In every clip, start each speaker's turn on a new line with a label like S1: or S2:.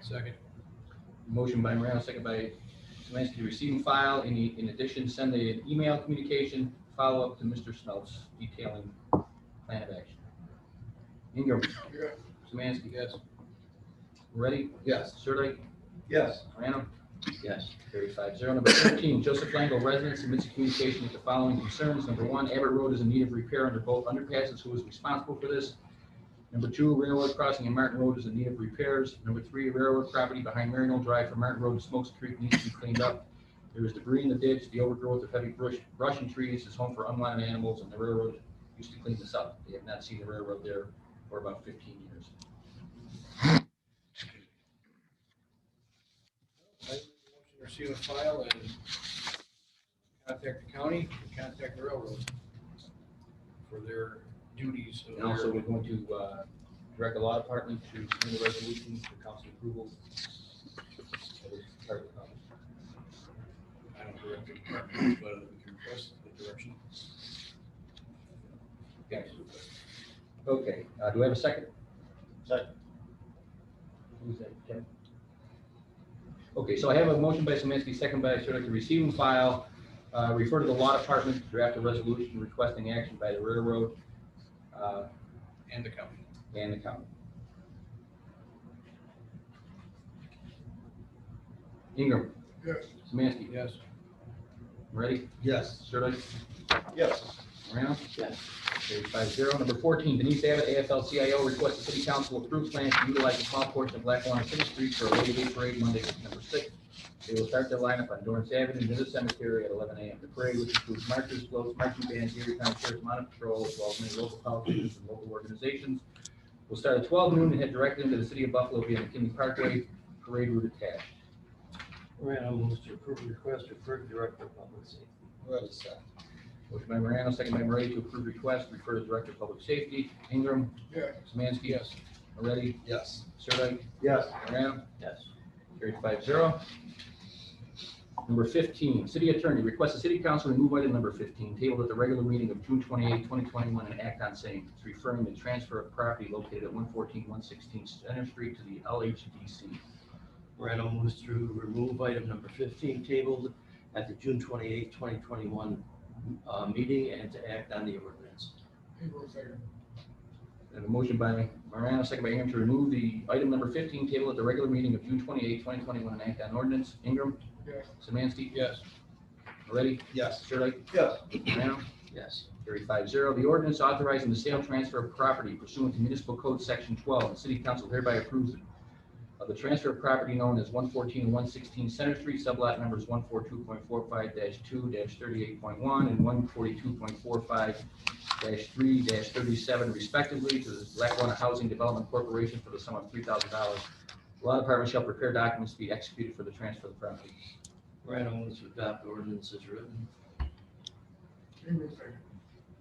S1: Second.
S2: Motion by Morano, second by Semansky, to receive and file. In, in addition, send an email communication, follow-up to Mr. Snells detailing plan of action. Ingram.
S1: Yes.
S2: Semansky. Yes. Ready?
S1: Yes.
S2: Sir,
S1: Yes.
S2: Morano? Yes. Carried five zero. Number thirteen, Joseph Lango, resident, submits a communication with the following concerns. Number one, Abbott Road is in need of repair under both underpasses. Who is responsible for this? Number two, railroad crossing in Martin Road is in need of repairs. Number three, railroad property behind Marinal Drive from Martin Road to Smokes Creek needs to be cleaned up. There is debris in the ditch, the overgrowth of heavy brush, brush and trees is home for unwanted animals, and the railroad used to clean this up. They have not seen the railroad there for about fifteen years.
S1: Receive a file and contact the county, and contact the railroad for their duties. of
S2: And also,
S1: their-
S2: we're going to uh, direct the law department to bring the resolution for council approval. That is part of the problem.
S1: I don't direct the department, but we can request the direction.
S2: Yes. Okay, uh, do I have a second?
S3: Second.
S2: Who's that, Kevin? Okay, so I have a motion by Semansky, second by Sirdike, to receive and file, uh, refer to the law department to draft a resolution requesting action by the railroad uh,
S1: And the county.
S2: and the county. Ingram.
S1: Yes.
S2: Semansky.
S1: Yes.
S2: Ready?
S3: Yes.
S2: Sirdike?
S3: Yes.
S2: Morano?
S3: Yes.
S2: Carried five zero. Number fourteen, Denise Abbott, AFL-CIO, requests the city council approve plans to utilize a small portion of Lackawanna City Street for a Labor Day parade Monday, September sixth. They will start their lineup on Dorrance Avenue near the cemetery at eleven AM. The parade, which includes marchers, floats, marching bands, Erie County Sheriff's Mounted Patrol, as well as many local politicians and local organizations, will start at twelve noon and head directly into the city of Buffalo via McKinney Parkway, parade route attached.
S4: Morano moves to approve request to approve director of public safety.
S3: Ready, second.
S2: Motion by Morano, second by Moretti to approve request, refer to Director of Public Safety. Ingram.
S1: Yeah.
S2: Semansky.
S1: Yes.
S2: Moretti.
S3: Yes.
S2: Sirdike.
S3: Yes.
S2: Morano.
S4: Yes.
S2: Carried five zero. Number fifteen, City Attorney requests the City Council remove item number fifteen, tabled at the regular meeting of June 28, twenty twenty-one, and act on same. It's referring the transfer of property located at 114-116 Center Street to the LHDC.
S4: Morano moves to remove item number fifteen tabled at the June twenty-eighth, twenty twenty-one, uh, meeting and to act on the ordinance.
S2: And a motion by Morano, second by Ingram, to remove the item number fifteen, tabled at the regular meeting of June 28, twenty twenty-one, and act on ordinance. Ingram.
S1: Yes.
S2: Semansky.
S1: Yes.
S2: Moretti.
S3: Yes.
S2: Sirdike.
S3: Yes.
S2: Morano.
S4: Yes.
S2: Carried five zero. The ordinance authorizing the sale transfer of property pursuant to municipal code section twelve. The city council hereby approves of the transfer of property known as one fourteen and one sixteen Center Street, sublot numbers one four two point four five two thirty-eight point one and one forty-two point four five three thirty-seven respectively to the Lackawanna Housing Development Corporation for the sum of three thousand dollars. Law department shall prepare documents to be executed for the transfer of the property.
S4: Morano moves to adopt ordinance as written.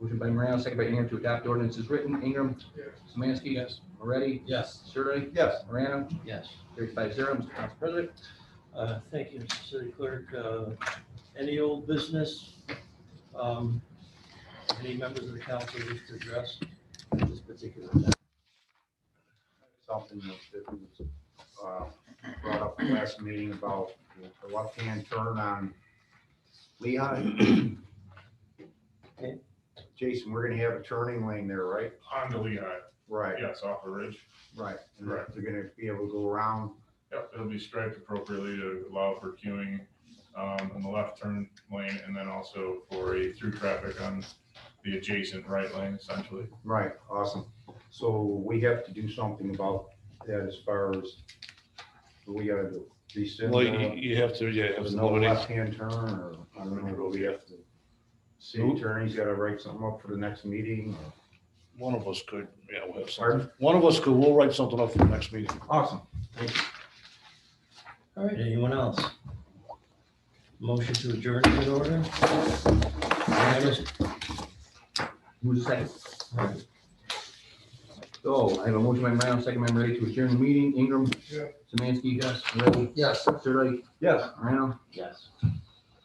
S2: Motion by Morano, second by Ingram to adopt ordinance is written. Ingram.
S1: Yes.
S2: Semansky.
S1: Yes.
S2: Moretti.
S3: Yes.
S2: Surley.
S3: Yes.
S2: Morano.
S4: Yes.
S2: Carried five zero. Mr. Council President.
S4: Uh, Thank you, Mr. City Clerk. Uh, Any old business? um, Any members of the council wish to address at this particular time?
S5: something that that was uh, brought up at last meeting about the left-hand turn on Lehigh.
S4: Okay.
S5: Jason, we're gonna have a turning lane there, right?
S6: On the Lehigh,
S5: Right,
S6: yes, off the ridge.
S5: right. And
S6: Correct.
S5: They're gonna be able to go around.
S6: Yep, it'll be striped appropriately to allow for queuing um, in the left turn lane and then also for a through traffic on the adjacent right lane essentially.
S5: Right, awesome. So we have to do something about that as far as, we gotta do? rescind
S7: Well,
S5: the-
S7: you, you have to, yeah, have
S5: There's
S7: to
S5: no
S7: nominate.
S5: left-hand turn, or, I don't know, we have to, city
S7: Who?
S5: attorney's gotta write something up for the next meeting, or-
S7: One of us could, yeah, we'll have something.
S5: Pardon?
S7: One of us could, we'll write something up for the next meeting.
S5: Awesome.
S4: All right, anyone else? Motion to adjourn is in order?
S2: Who's second? So I have a motion by Morano, second by Moretti to adjourn the meeting. Ingram.
S1: Yeah.
S2: Semansky. Yes. Moretti.
S3: Yes.
S2: Surley.
S5: Yes.
S2: Morano.
S4: Yes.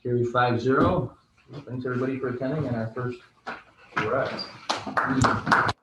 S2: Carried five zero. Thanks everybody for attending and our first.
S5: Correct.